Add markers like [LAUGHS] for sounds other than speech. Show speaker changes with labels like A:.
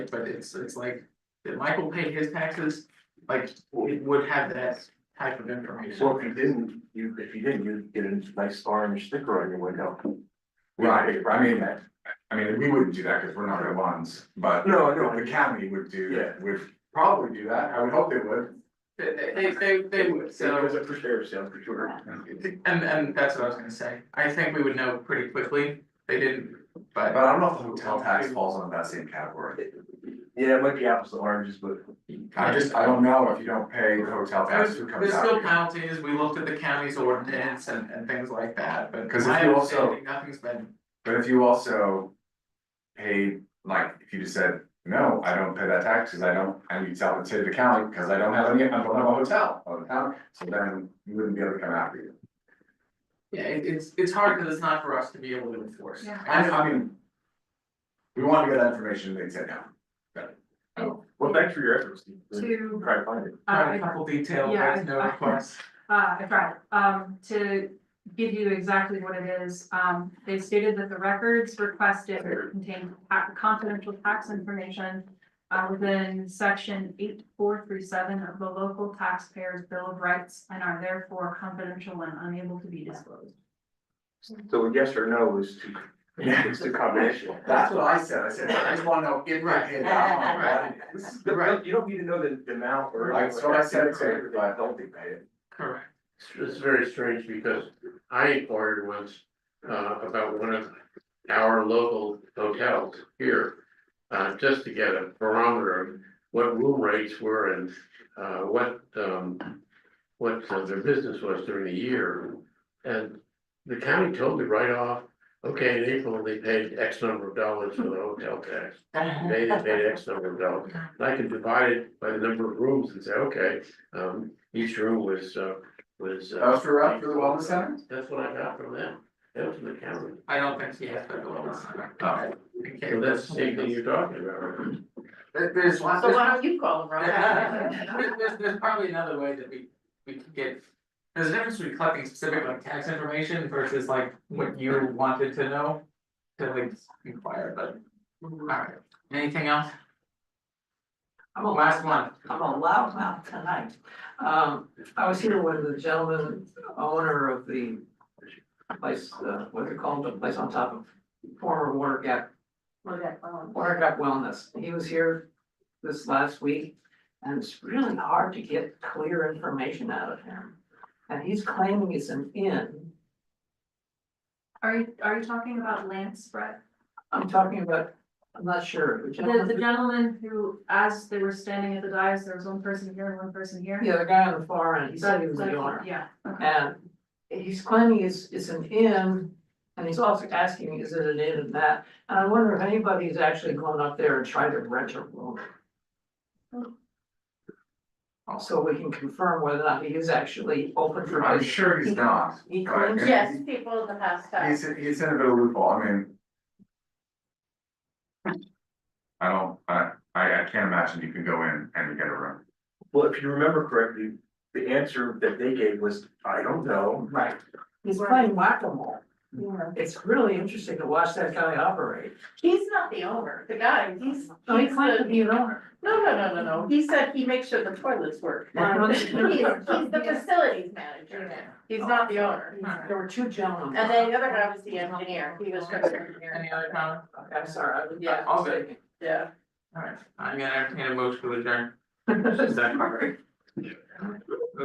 A: But it's, it's like, did Michael pay his taxes? Like, it would have that type of information.
B: Well, if you didn't, you, if you didn't, you'd get a nice orange sticker on your window.
C: Right, I mean, I mean, we wouldn't do that because we're not the ones, but
B: No,
C: the county would do,
B: Yeah.
C: would probably do that, I would hope they would.
A: They, they- they, they would,
B: It was
A: so,
B: a for sure sale, for sure.
A: and, and that's what I was gonna say. I think we would know pretty quickly. They didn't,
C: But
A: but
C: I don't know if the hotel tax falls under that same category.
B: Yeah, it might be apples to oranges, but
C: I just, I don't know if you don't pay the hotel tax,
A: there's,
C: who
A: there's
C: comes
A: still
C: out?
A: penalties. We looked at the county's ordinance and, and things like that, but
C: 'Cause if
A: my
C: you also-
A: understanding, nothing's been,
C: But if you also paid, like, if you just said, no, I don't pay that tax because I don't, and you tell the to the county because I don't have any, I don't have a hotel, on the town, so then you wouldn't be able to come after you.
A: yeah, it, it's, it's hard because it's not for us to be able to enforce.
D: Yeah.
C: I I mean. We want to get that information, they said no.
B: well, thanks for your efforts. Steve.
D: To,
B: Try to find it.
A: Got a
D: uh,
A: couple detail,
D: Yeah,
A: but no
D: I- I-
A: requests.
D: uh, I tried, um, to give you exactly what it is. Um, they stated that the records requested contain ta- confidential tax information uh, within section eight, four through seven of the local taxpayers' bill of rights and are therefore confidential and unable to be disclosed.
B: So a yes or no is to, is to combination.
C: That's what I said, I said, I just wanna know if I hit that one, right? This is the right-
B: You don't need to know the, the amount or.
C: Like, so I said, it's everybody, I don't think I did.
A: Correct.
E: It's- It's very strange because I inquired once uh about one of our local hotels here. Uh just to get a barometer of what room rates were and uh what um. What uh, their business was during the year. And the county told me right off, okay, in April, they paid X number of dollars for the hotel tax. They they paid X number of dollars. And I can divide it by the number of rooms and say, okay, um, each room was, uh, was. uh,
C: That was for, uh, for the wellness center?
E: That's what I got from them. That was from the county.
A: I don't think he has been going
C: Oh.
A: on. Okay.
E: So that's the same thing you're talking about. right?
A: There- There's lots.
F: So why don't you call
A: [LAUGHS]
F: them, Rob?
A: There's, there's- there's probably another way that we, we could get, there's a difference between collecting specific like tax information versus like what you wanted to know. To like inquire, but, alright, anything else?
F: I'm a
A: Last one,
F: I'm a loud mouth tonight. Um, I was here with the gentleman, owner of the place, uh, what they called the place on top of former Water Gap, Water Gap Wellness. He was here this last week, and it's really hard to get clear information out of him. And he's claiming it's an inn.
D: Are you, are you talking about Lance Brett?
F: I'm talking about, I'm not sure. the
D: The,
F: gentleman-
D: the gentleman who, as they were standing at the dais, there was one person here and one person here?
F: Yeah, the guy on the far end, he said he was the owner.
D: Yeah, okay.
F: And he's claiming it's, it's an inn, and he's also asking, is it an inn and that? And I wonder if anybody's actually gone up there and tried to rent a room. So we can confirm whether or not he is actually open for
C: I'm
F: business.
C: sure he's not.
F: He
C: Right,
F: claims,
C: and
G: Yes, people in the past
C: He's,
G: have.
C: he's in a bit of a loophole, I mean. I don't, I, I, I can't imagine you can go in and get a room.
B: Well, if you remember correctly, the answer that they gave was, I don't know.
F: right, he's playing whack-a-mole. It's really interesting to watch that guy operate.
G: He's not the owner, the guy, he's, he's
F: So he claims to
G: the,
F: be an owner.
G: no, no, no, no, no, he said he makes sure the toilets work. [LAUGHS] He's, he's the facilities manager, he's not the owner.
F: There were
G: [LAUGHS]
F: two gentlemen.
G: And then the other guy was the engineer, he was structural engineer,
A: any other comment?
F: Okay, I'm sorry, I was.
G: Yeah,
A: all good.
F: mistaken.
G: yeah.
A: [LAUGHS] Alright, I'm gonna entertain a motion to adjourn.
F: Sorry.